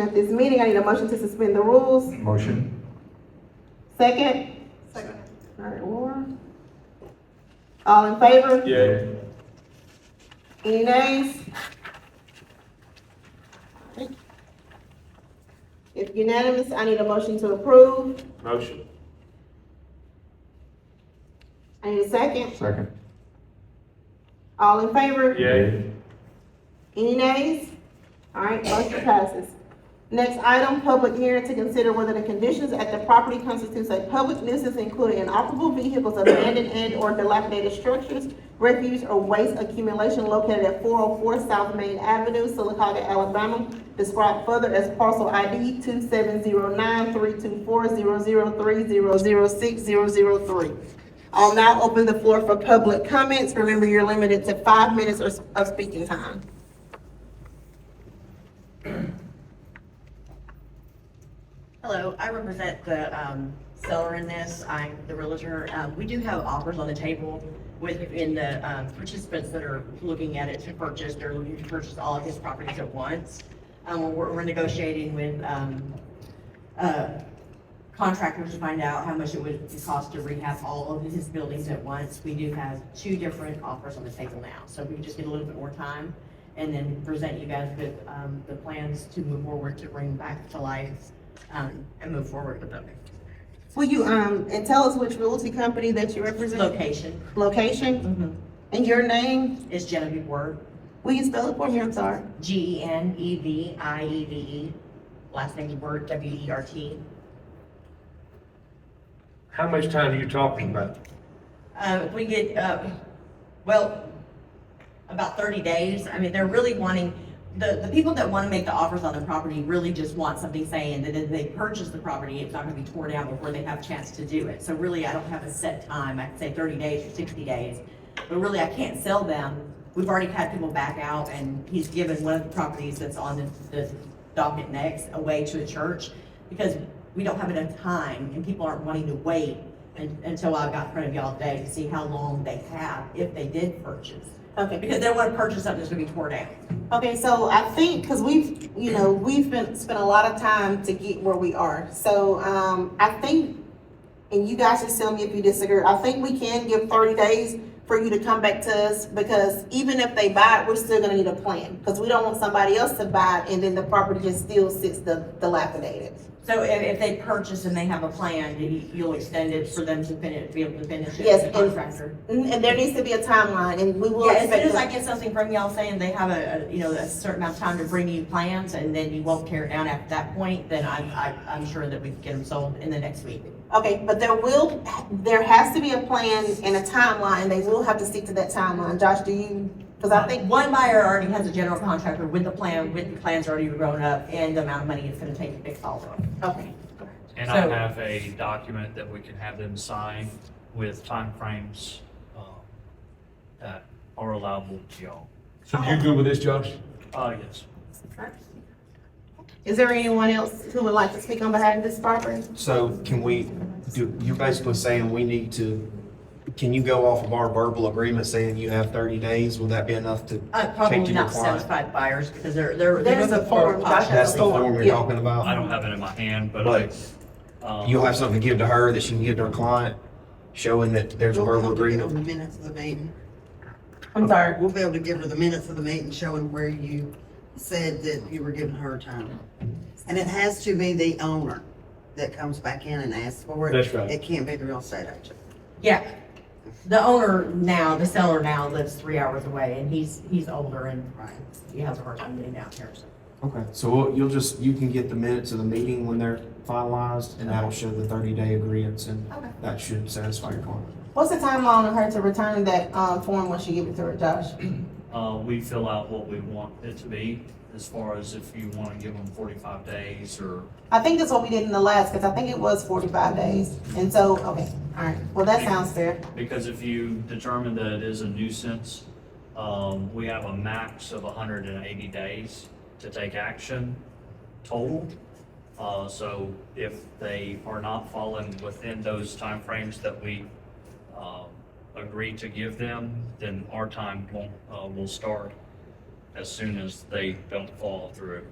At this meeting, I need a motion to suspend the rules. Motion? Second? Second. All right, Laura. All in favor? Yay. Any nays? If unanimous, I need a motion to approve. Motion. I need a second. Second? All in favor? Yay. Any nays? All right, motion passes. Next item, public hearing to consider whether the conditions at the property constitutes a public nuisance including inoperable vehicles, abandoned and or dilapidated structures, refuse or waste accumulation located at four oh four South Main Avenue, Silicaca, Alabama, described further as parcel ID two seven zero nine three two four zero zero three zero zero six zero zero three. I'll now open the floor for public comments. Remember, you're limited to five minutes or s- of speaking time. Hello, I represent the um, seller in this. I'm the realtor. Um, We do have offers on the table with, in the um, participants that are looking at it to purchase, they're looking to purchase all of his properties at once. Um, We're we're negotiating with um, uh, contractors to find out how much it would cost to rehab all of his buildings at once. We do have two different offers on the table now, so we just get a little bit more time and then present you guys with um, the plans to move forward to bring back to life um, and move forward with them. Will you, um, and tell us which realty company that you represent? Location Location Mm-hmm. and your name? is Genevieve Word, Will you spell it for me? I'm sorry. G E N E V I E V E. Last name is Word, W E R T. How much time are you talking about? Uh, we get, uh, well, about thirty days. I mean, they're really wanting, the, the people that want to make the offers on the property really just want something saying that if they purchase the property, it's not going to be torn down before they have a chance to do it. So really, I don't have a set time. I can say thirty days or sixty days. But really, I can't sell them. We've already had people back out and he's given one of the properties that's on the, the docket next away to a church because we don't have enough time and people aren't wanting to wait un- until I got in front of y'all today to see how long they have if they did purchase. Okay. Because they want to purchase something that's gonna be torn down. Okay, so I think, cause we've, you know, we've been, spent a lot of time to get where we are. So, um, I think, and you guys just tell me if you disagree, I think we can give thirty days for you to come back to us because even if they buy it, we're still gonna need a plan. Cause we don't want somebody else to buy it and then the property just still sits di- dilapidated. So if, if they purchase and they have a plan, you- you'll extend it for them to finish, be able to finish it. Yes, as a and- contractor. And and there needs to be a timeline and we will. Yeah, as soon expect as the- I get something from y'all saying they have a, a, you know, a certain amount of time to bring you plans and then you won't tear it down at that point, then I'm, I, I'm sure that we can get them sold in the next week. Okay, but there will, there has to be a plan and a timeline, they will have to stick to that timeline, Josh, do you, cause I think, One buyer already has a general contractor with the plan, with the plans already grown up and the amount of money it's gonna take to fix all of them. okay, And I So- have a document that we can have them sign with timeframes um, that are allowable to y'all. So you good with this, Josh? Uh, yes. is there anyone else who would like to speak on behalf of this property? So can we, do, you're basically saying we need to, can you go off of our verbal agreement saying you have thirty days? Will that be enough to Uh, take probably to your not client? satisfied buyers because they're, they're. There's they're the form, Josh. cautious. That's the form you're Yeah. talking I about? don't have it in my hand, but I. um, You'll have something to give to her that she can give to her client, showing that there's a We'll be able verbal to give her agreement? The minutes of the meeting. I'm sorry. We'll be able to give her the minutes of the meeting showing where you said that you were giving her time. And it has to be the owner that comes back in and asks for it. That's right. It can't be the real estate agent. Yeah. The owner now, the seller now lives three hours away and he's, he's older and Right. he has a hard time getting out here. so. Okay, so we'll- you'll just, you can get the minutes of the meeting when they're finalized, and that'll show the thirty-day agreement, and Okay. that should satisfy your client. What's the timeline on her to return that, um, form once you give it to her, Josh? Uh, we fill out what we want it to be as far as if you want to give them forty-five days or. I think that's what we did in the last, cause I think it was forty-five days, and so, okay, alright, well, that sounds fair, Because if you determine that it is a nuisance, um, we have a max of hundred and eighty days to take action total. Uh, so if they are not falling within those timeframes that we, um, agree to give them, then our time won't, uh, will start as soon as they don't fall through.